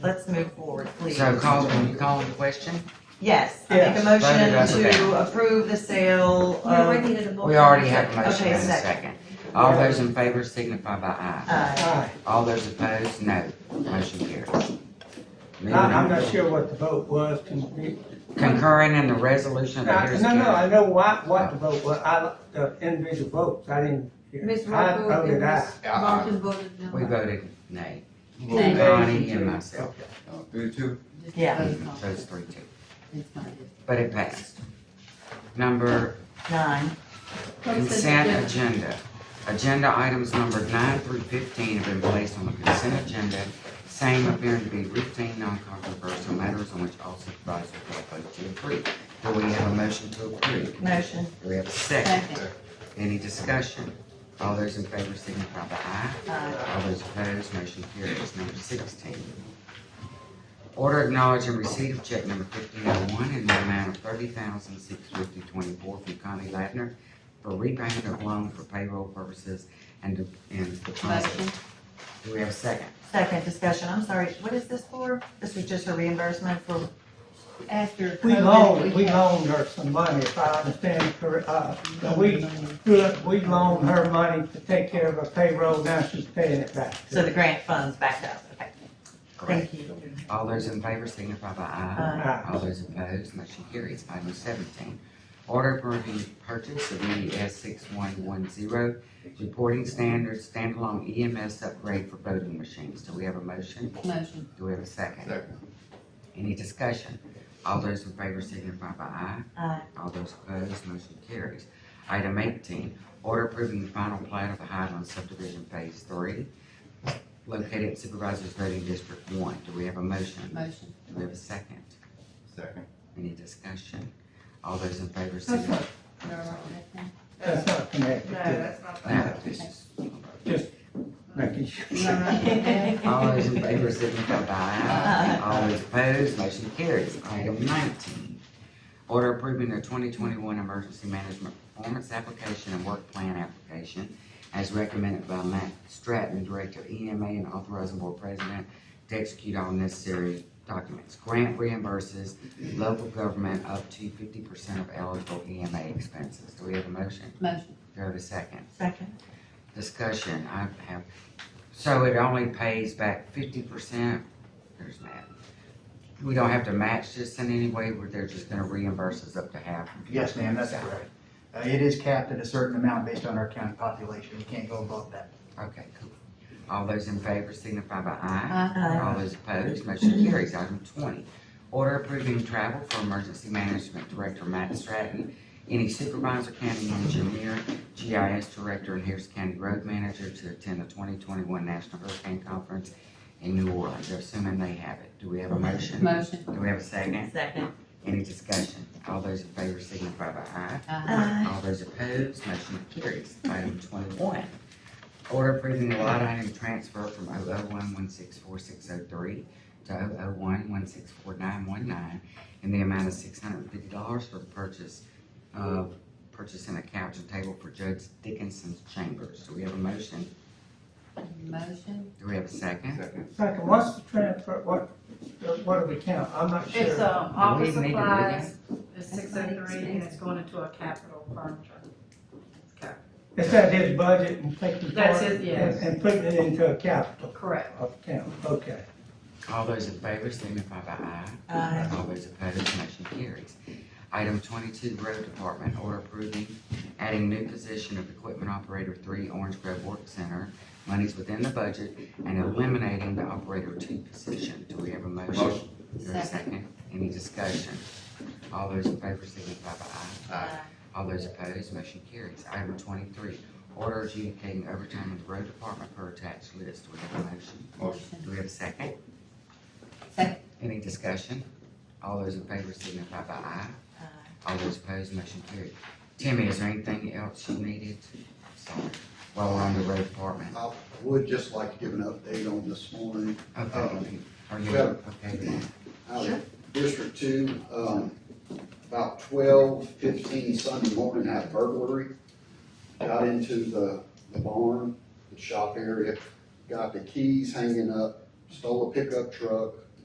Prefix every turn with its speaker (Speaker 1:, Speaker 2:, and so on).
Speaker 1: Let's move forward, please.
Speaker 2: So call, you calling the question?
Speaker 1: Yes, I make a
Speaker 2: Yes.
Speaker 1: motion to approve the sale
Speaker 3: No, I
Speaker 1: of,
Speaker 3: needed a vote.
Speaker 2: Um, We already have a motion
Speaker 1: Okay,
Speaker 2: and a second.
Speaker 1: second.
Speaker 2: All those in favor signify by aye.
Speaker 1: uh,
Speaker 2: All those opposed, no. Motion carries. Moving
Speaker 4: I, I'm not
Speaker 2: on.
Speaker 4: sure what the vote was. Can we-
Speaker 2: Concurring in the resolution of the
Speaker 4: I-
Speaker 2: Harris
Speaker 4: No, no, I
Speaker 2: County.
Speaker 4: know why, what the vote was. I, the individual votes, I didn't. hear.
Speaker 3: Ms.
Speaker 4: I
Speaker 3: Rocco
Speaker 4: voted
Speaker 3: and
Speaker 4: aye.
Speaker 3: Ms.
Speaker 5: Uh,
Speaker 3: Martin voted no.
Speaker 2: We voted nay.
Speaker 3: Nay.
Speaker 2: Connie and myself.
Speaker 5: uh, Three, two.
Speaker 1: yeah,
Speaker 2: Mhm, So it's three, two. But it passed. Number
Speaker 1: nine.
Speaker 2: Consent agenda. Agenda items numbered nine through fifteen have been placed on the consent agenda, same appearing to be routine, non-controversial matters on which all supervisors will vote to approve. Do we have a motion to approve?
Speaker 1: Motion,
Speaker 2: Do we have a second?
Speaker 3: Second.
Speaker 2: Any discussion? All those in favor signify by aye.
Speaker 1: uh,
Speaker 2: All those opposed, motion carries. Number sixteen. Order acknowledging receipt of check number fifteen oh one in the amount of thirty thousand six fifty twenty-four from Connie Ladner for repayment of loan for payroll purposes and, de- and deposit.
Speaker 3: Motion.
Speaker 2: Do we have a second?
Speaker 1: second discussion, I'm sorry, what is this for? This is just a reimbursement for,
Speaker 3: After.
Speaker 4: We
Speaker 3: COVID,
Speaker 4: loaned, we
Speaker 3: had-
Speaker 4: loaned her some money, if I understand correct. Uh, but we, we loaned her money to take care of her payroll, now she's paying it back.
Speaker 1: so the grant funds backed up, okay,
Speaker 2: Correct.
Speaker 1: thank you.
Speaker 2: All those in favor signify by aye.
Speaker 4: Aye.
Speaker 2: All those opposed, motion carries. Item seventeen. Order approving purchase of ES six one one zero, reporting standards, standalone EMS upgrade for voting machines. Do we have a motion?
Speaker 3: Motion.
Speaker 2: Do we have a second?
Speaker 5: Second.
Speaker 2: Any discussion? All those in favor signify by aye.
Speaker 1: Uh,
Speaker 2: All those opposed, motion carries. Item eighteen, order approving the final plat of the Highland subdivision phase three, located Supervisors Voting District One. Do we have a motion?
Speaker 3: Motion.
Speaker 2: Do we have a second?
Speaker 5: Second.
Speaker 2: Any discussion? All those in favor
Speaker 3: That's
Speaker 2: signify.
Speaker 3: not, they're all right with that.
Speaker 4: That's not connected to
Speaker 6: that's not.
Speaker 2: No, this is-
Speaker 4: making sure.
Speaker 3: You're all right with that?
Speaker 2: All those in favor signify by aye. All those opposed, motion carries. Item nineteen, order approving the twenty twenty-one emergency management performance application and work plan application as recommended by Matt Stratton, Director of EMA and authorizing board president to execute all necessary documents. Grant reimburses local government up to fifty percent of eligible EMA expenses. Do we have a motion?
Speaker 3: Motion.
Speaker 2: Do we have a second?
Speaker 1: second,
Speaker 2: discussion I have, so it only pays back fifty percent, there's Matt. We don't have to match this in any way, where they're just gonna reimburse us up to half.
Speaker 7: Yes, ma'am, that's correct. Uh, It is capped at a certain amount based on our county population. We can't go above that.
Speaker 2: Okay, cool. All those in favor signify by aye.
Speaker 3: Aye.
Speaker 1: uh,
Speaker 2: All those opposed, motion carries. Item twenty, order approving travel for Emergency Management Director Matt Stratton, any supervisor, county engineer, GIS Director, and Harris County Road Manager to attend the twenty twenty-one National Hurricane Conference in New Orleans, assuming they have it. Do we have a motion?
Speaker 3: Motion.
Speaker 2: Do we have a second?
Speaker 1: second,
Speaker 2: Any discussion? All those in favor signify by aye.
Speaker 3: Aye.
Speaker 1: uh,
Speaker 2: All those opposed, motion carries. Item twenty-one, order approving the line item transfer from 001164603 to 001164919 in the amount of six hundred and fifty dollars for the purchase of purchasing a couch and table for Judge Dickinson's chambers. Do we have a motion?
Speaker 3: Motion.
Speaker 2: Do we have a second?
Speaker 5: Second.
Speaker 4: Second, what's the transfer, what, what do we count? I'm not sure.
Speaker 6: It's, um,
Speaker 2: Do we
Speaker 6: office
Speaker 2: even need to do
Speaker 6: supplies, it's
Speaker 3: That's
Speaker 6: six
Speaker 3: not
Speaker 6: oh three, and it's
Speaker 3: expensive.
Speaker 6: going into a capital furniture. Okay,
Speaker 4: Is that his budget and taking
Speaker 6: That's
Speaker 4: part
Speaker 6: it,
Speaker 4: and-
Speaker 6: yes.
Speaker 4: And putting it into a capital
Speaker 6: Correct.
Speaker 4: account, okay.
Speaker 2: All those in favor signify by aye.
Speaker 1: uh,
Speaker 2: All those opposed, motion carries. Item twenty-two, Road Department, order approving adding new position of Equipment Operator Three, Orange Grove Work Center, monies within the budget, and eliminating the Operator Two position. Do we have a motion?
Speaker 5: Motion.
Speaker 2: Is there a second? Any discussion? All those in favor signify by aye.
Speaker 5: Aye.
Speaker 2: All those opposed, motion carries. Item twenty-three, order adjudicating overtime in the road department per attached list. Do we have a motion?
Speaker 5: Motion.
Speaker 2: Do we have a second?
Speaker 3: Second.
Speaker 2: Any discussion? All those in favor signify by aye.
Speaker 1: Aye.
Speaker 2: All those opposed, motion carried. Timmy, is there anything else you needed? Sorry, while we're on the road department.
Speaker 8: I would just like to give an update on this morning.
Speaker 2: Okay, are you,
Speaker 8: Well-
Speaker 2: okay,
Speaker 8: Out of District Two, um, about twelve fifteen Sunday morning, had a burglary. Got into the, the barn, the shop area, got the keys hanging up, stole a pickup truck,